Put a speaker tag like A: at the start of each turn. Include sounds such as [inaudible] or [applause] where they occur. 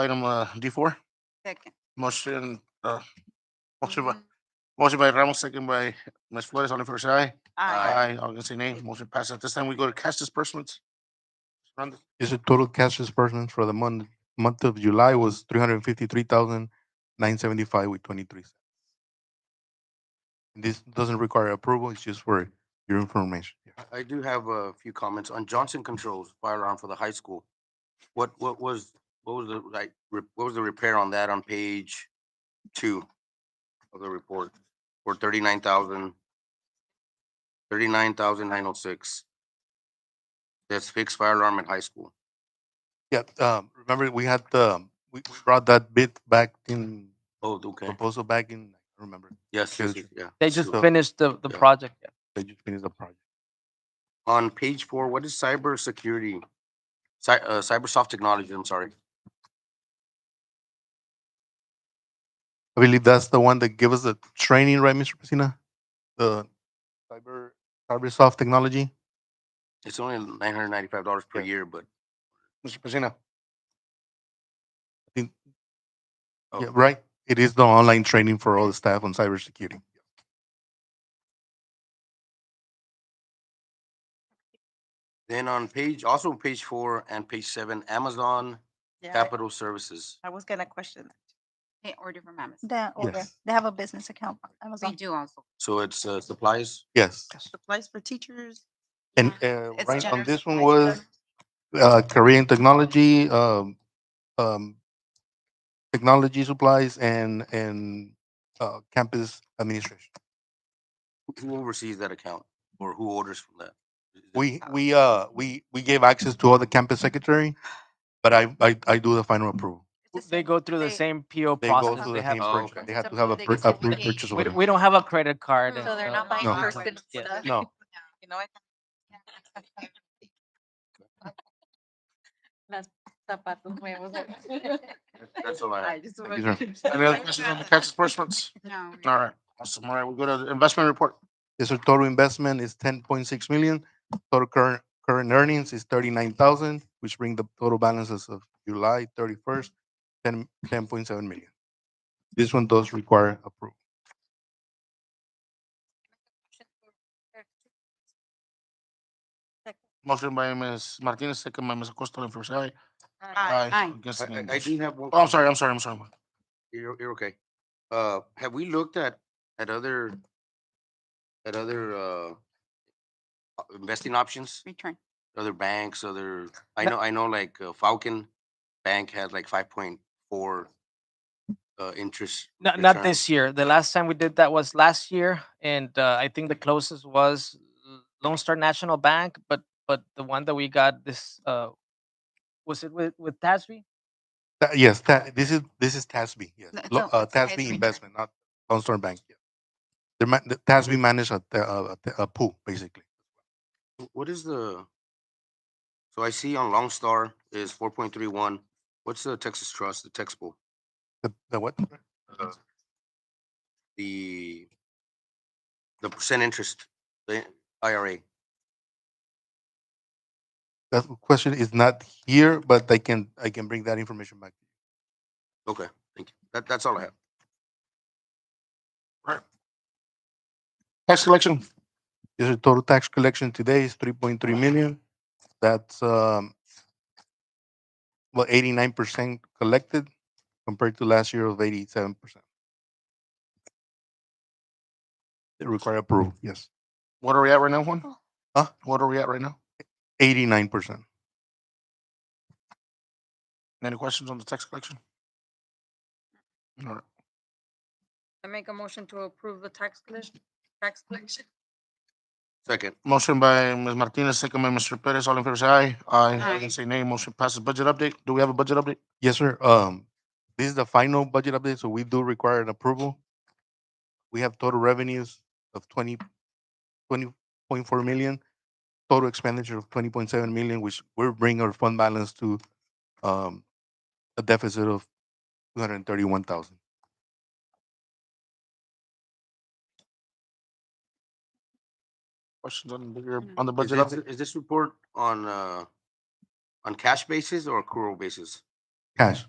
A: item uh, D4.
B: Second.
A: Motion, uh, motion
B: Mm-hmm.
A: by, motion by Ramos, second by Ms. Flores. All in favor, say aye.
B: Aye.
A: All against, say nay. Motion passes. At this time, we go to cash disbursements. Run the-
C: Is it total cash disbursements for the month, month of July was three hundred and fifty-three thousand nine seventy-five with twenty-three cents. This doesn't require approval, it's just for your information.
D: I- I do have a few comments on Johnson Controls firearm for the high school. What, what was, what was the, like, re- what was the repair on that on page two of the report? For thirty-nine thousand, thirty-nine thousand nine oh six. That's fixed firearm at high school.
C: Yeah, um, remember we had the, we we brought that bid back in,
D: Oh, okay.
C: proposal back in, I remember,
D: Yes, yes,
C: Good.
D: yes, yeah.
E: They just
C: So-
E: finished the, the
D: Yeah.
E: project. yeah.
C: they just finished the project.
D: On page four, what is cybersecurity? Cy, uh, cybersoft technology, I'm sorry.
C: I believe that's the one that gave us the training, right, Mr. Pacina? The cyber, cyber soft technology?
D: It's only nine hundred ninety-five dollars per year, but
A: Mr. Pacino.
D: Oh.
C: Yeah, right. It is the online training for all the staff on cybersecurity.
D: Then on page, also on page four and page seven, Amazon
B: Yeah,
D: Capital Services.
B: I was gonna question that. They order from Amazon.
F: That order,
C: Yes.
F: they have a business account on
B: We
F: Amazon.
B: do also.
D: So it's uh, supplies.
C: Yes.
B: Supplies for teachers.
C: And uh,
B: It's
C: right on
B: generous
C: this one
B: supplies
C: was uh, Korean technology, um, um, technology supplies, and and uh, campus administration.
D: Who oversees that account or who orders from that? Is it-
C: We
B: Oh,
C: we uh we we gave access to all the campus secretary, but I I, I do the final approval.
B: It's the
E: They
B: same-
E: go through the
B: they-
E: same PO
C: They go
E: process.
C: to
E: They
C: the
E: have,
C: same
D: Oh,
C: purchase.
D: okay.
C: They have to have a
B: They
C: pur-
B: get
C: a
B: certificate.
C: purchase
E: we,
C: order.
E: we don't have a credit card. and
B: So they're not
E: stuff.
B: buying
C: No.
B: first and
E: Yeah.
B: stuff.
C: No.
B: [laughs] You know, it's-
D: That's all I have.
B: just
C: Thank you,
B: wanna-
A: Any other questions on the cash disbursements?
B: No.
A: All right, awesome. All right, we go to the investment report.
C: Yes, sir. Total investment is ten point six million. Total current, current earnings is thirty-nine thousand, which bring the total balances of July thirty-first, ten, ten point seven million. This one does require approval.
A: Motion by Ms. Martinez, second by Ms. Acosta, all in favor, say aye.
B: Aye.
A: Against,
D: I-
A: say nay.
D: I- I do have one.
A: Oh, I'm sorry, I'm sorry, I'm sorry.
D: You're, you're okay. Uh, have we looked at, at other, at other, uh, uh, investing options,
B: Return.
D: other banks, other, I know, I know like uh, Falcon Bank had like five point four uh, interest.
E: Not, not
D: return.
E: this year. The last time we did that was last year, and uh, I think the closest was L- Lone Star National Bank. But but the one that we got this uh, was it with with Tasby?
C: Tha- Yes, that, this is, this is TASB, yes.
B: No, it's
C: Lo-
B: not-
C: Uh,
B: it's TASB.
C: TASB investment, not Lone Star Bank. yeah. The ma, the TASB managed a, a, a pool, basically.
D: What is the, so I see on Long Star is four point three one. What's the Texas Trust, the Texas Bowl?
C: The, the what?
D: The, the percent interest, the IRA.
C: That question is not here, but I can, I can bring that information back.
D: Okay, thank you. That, that's all I have.
A: Tax collection,
C: Yes, sir. total tax collection today is three point three million. That's um well, eighty-nine percent collected compared to last year of eighty-seven percent. They require approval, yes,
A: what are we at right now,
B: Oh.
A: Juan?
C: Huh?
A: What are we at right now?
C: eighty-nine percent.
A: Any questions on the tax collection? All right,
B: I make a motion to approve the tax collection, tax collection.
D: Second,
A: motion by Ms. Martinez, second by Mr. Perez, all in favor, say aye. Aye,
B: Aye.
A: against, say nay. Motion passes. Budget update, do we have a budget update?
C: Yes, sir, um, this is the final budget update, so we do require an approval. We have total revenues of twenty, twenty point four million, total expenditure of twenty point seven million, which will bring our fund balance to um, a deficit of two hundred and thirty-one thousand.
A: Questions on the, on the
D: is
A: budget
D: this,
A: update?
D: is this report on, uh, on cash basis or accrual basis?
C: Cash,